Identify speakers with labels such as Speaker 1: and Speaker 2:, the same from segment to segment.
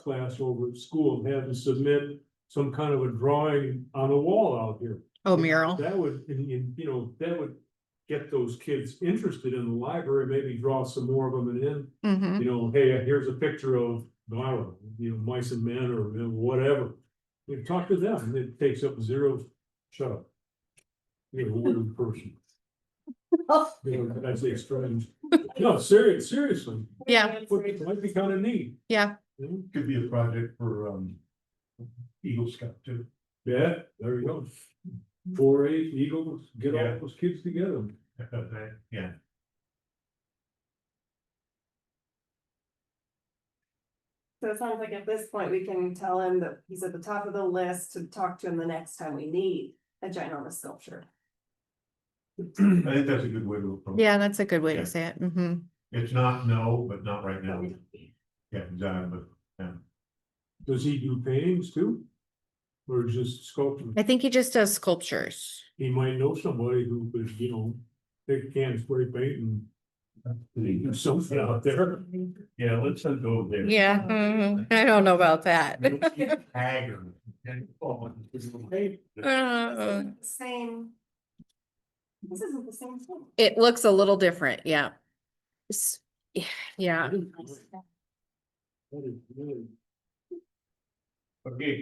Speaker 1: class over at school and have them submit some kind of a drawing on a wall out here.
Speaker 2: Oh, mural.
Speaker 1: That would, and, and, you know, that would get those kids interested in the library, maybe draw some more of them and then
Speaker 2: Mm-hmm.
Speaker 1: you know, hey, here's a picture of, I don't know, you know, mice and men or whatever. You talk to them, and it takes up zero, shut up. You're a weird person. You know, I say strange. No, serious, seriously,
Speaker 2: Yeah.
Speaker 1: but it might be kind of neat.
Speaker 2: Yeah.
Speaker 1: You know?
Speaker 3: Could be a project for um Eagle Scout too.
Speaker 1: Yeah, there you go. Four H Eagles, get all those kids together.
Speaker 3: Yeah.
Speaker 4: So it sounds like at this point, we can tell him that he's at the top of the list to talk to him the next time we need a ginormous sculpture.
Speaker 3: I think that's a good way to approach. it.
Speaker 2: Yeah, that's a good way
Speaker 3: Yeah.
Speaker 2: to say it. Mm-hmm.
Speaker 3: It's not no, but not right now.
Speaker 4: He
Speaker 3: Yeah, exactly. Yeah.
Speaker 1: Does he do paintings too? Or just sculpting?
Speaker 2: I think he just does sculptures.
Speaker 1: He might know somebody who could, you know, they can spray paint and do something out there.
Speaker 3: Yeah, let's not go there.
Speaker 2: Yeah, mhm. I don't know about that.
Speaker 3: Haggard.
Speaker 2: Uh,
Speaker 4: isn't the Same. This isn't the same thing.
Speaker 2: It looks a little different, yeah. S- Yeah,
Speaker 3: Okay,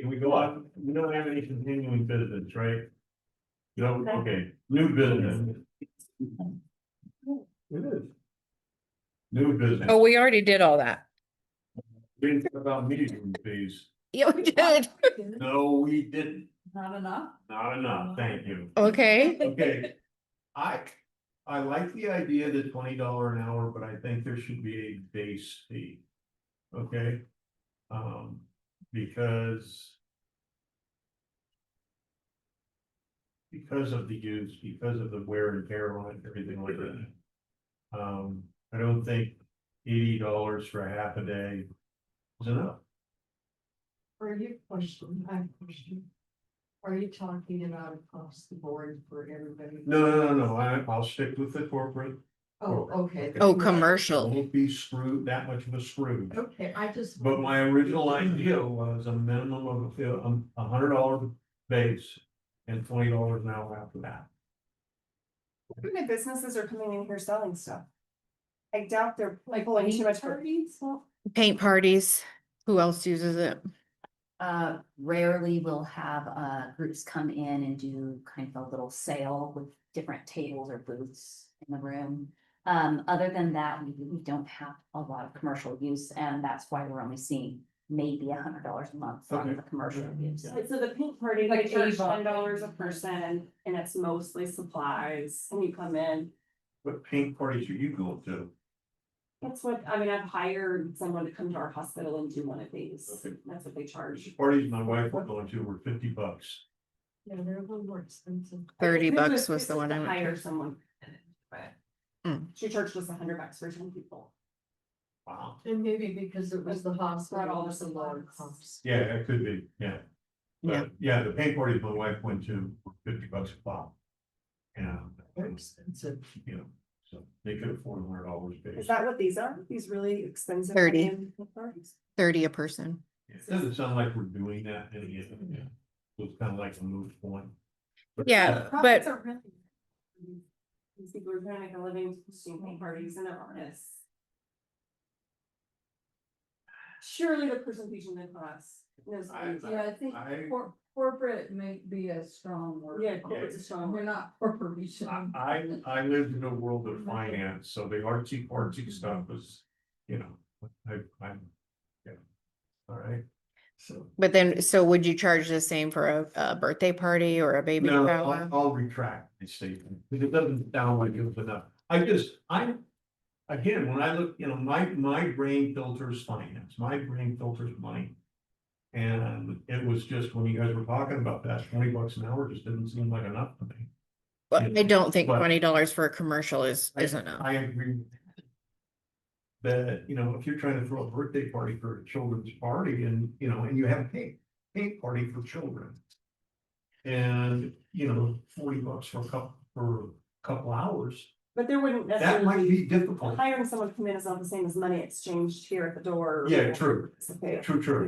Speaker 3: can we go on? We don't have any continuing business, right? No, okay, new business,
Speaker 1: It is.
Speaker 3: new business.
Speaker 2: oh, we already did all that.
Speaker 3: Didn't talk about meeting fees.
Speaker 2: Yeah, we did,
Speaker 3: No, we didn't.
Speaker 4: Not enough.
Speaker 3: Not enough, thank you.
Speaker 2: okay.
Speaker 3: Okay, I, I like the idea of the twenty dollar an hour, but I think there should be a base fee. Okay? Um, because. Because of the use, because of the wear and tear on it, everything like that. Um, I don't think eighty dollars for half a day is enough.
Speaker 5: Are you question, I have a question. Are you talking about across the board for everybody?
Speaker 3: No, no, no, no, I, I'll stick with the corporate.
Speaker 5: Oh, okay.
Speaker 3: Okay.
Speaker 2: Oh,
Speaker 3: I
Speaker 2: commercial,
Speaker 3: won't be screwed, that much of a screw.
Speaker 5: Okay, I just.
Speaker 3: But my original idea was a minimum of a, a hundred dollar base and twenty dollars an hour after that.
Speaker 4: How many businesses are coming in here selling stuff? I doubt they're like pulling too much. for-
Speaker 2: paint parties, who else uses it?
Speaker 6: Uh, rarely we'll have, uh, groups come in and do kind of a little sale with different tables or booths in the room. Um, other than that, we, we don't have a lot of commercial use, and that's why we're only seeing maybe a hundred dollars a month
Speaker 3: Okay.
Speaker 6: on the commercial use.
Speaker 4: So the pink party,
Speaker 5: Like
Speaker 4: they charge
Speaker 5: Ava.
Speaker 4: ten dollars a person and it's mostly supplies and you come in.
Speaker 3: What paint parties are you going to?
Speaker 4: That's what, I mean, I've hired someone to come to our hospital and do one of these.
Speaker 3: Okay.
Speaker 4: That's what they charge.
Speaker 3: Parties my wife was going to were fifty bucks.
Speaker 5: Yeah, they're a little more expensive.
Speaker 2: Thirty
Speaker 4: This
Speaker 2: bucks was
Speaker 4: this
Speaker 2: the one
Speaker 4: to
Speaker 2: I went
Speaker 4: Hire
Speaker 2: to.
Speaker 4: someone. but
Speaker 2: Mm.
Speaker 4: She charged us a hundred bucks for ten people.
Speaker 3: Wow.
Speaker 5: And maybe because it was the
Speaker 4: Not all
Speaker 5: hospital, it's a
Speaker 4: the
Speaker 5: lower
Speaker 4: supplies.
Speaker 5: cost.
Speaker 3: Yeah, it could be, yeah. But,
Speaker 2: Yeah.
Speaker 3: Yeah, the paint parties my wife went to were fifty bucks a pop. And, um,
Speaker 5: They're expensive.
Speaker 3: you know, so they could afford a hundred dollars
Speaker 4: Is
Speaker 3: base.
Speaker 4: that what these are? These really expensive.
Speaker 2: 30.
Speaker 4: high-end parties?
Speaker 2: Thirty a person.
Speaker 3: It doesn't sound like we're doing that in the end. yeah. So it's kind of like a moot point. But-
Speaker 2: Yeah,
Speaker 4: Profits
Speaker 2: but
Speaker 4: are really- These people are trying to make a living hosting paint parties and they're artists. Surely the person teaching the class knows. what these
Speaker 5: Yeah,
Speaker 4: are.
Speaker 5: I think
Speaker 3: I-
Speaker 5: cor- corporate may be a strong word.
Speaker 4: Yeah, corporate's a strong word.
Speaker 5: We're not
Speaker 3: I,
Speaker 5: corporation.
Speaker 3: I,
Speaker 5: Mm-hmm.
Speaker 3: I lived in a world of finance, so the artsy fartsy stuff was, you know, I, I'm, yeah. All right, so.
Speaker 2: But then, so would you charge the same for a, a birthday party or a baby
Speaker 3: No,
Speaker 2: shower?
Speaker 3: I'll, I'll retract my statement, because it doesn't sound like it was enough. I just, I, again, when I look, you know, my, my brain filters finance, my brain filters money. And it was just when you guys were talking about that, twenty bucks an hour just didn't seem like enough to me.
Speaker 2: But I don't think
Speaker 3: But-
Speaker 2: twenty dollars for a commercial is,
Speaker 3: I-
Speaker 2: is enough.
Speaker 3: I agree. with That, That, you know, if you're trying to throw a birthday party for a children's party and, you know, and you have a paint, paint party for children. And, you know, forty bucks for a couple, for a couple hours,
Speaker 4: But there wouldn't
Speaker 3: that might
Speaker 4: necessarily,
Speaker 3: be difficult.
Speaker 4: hiring someone to come in is not the same as money exchanged here at the door.
Speaker 3: Yeah, true,
Speaker 4: It's okay.
Speaker 3: true, true.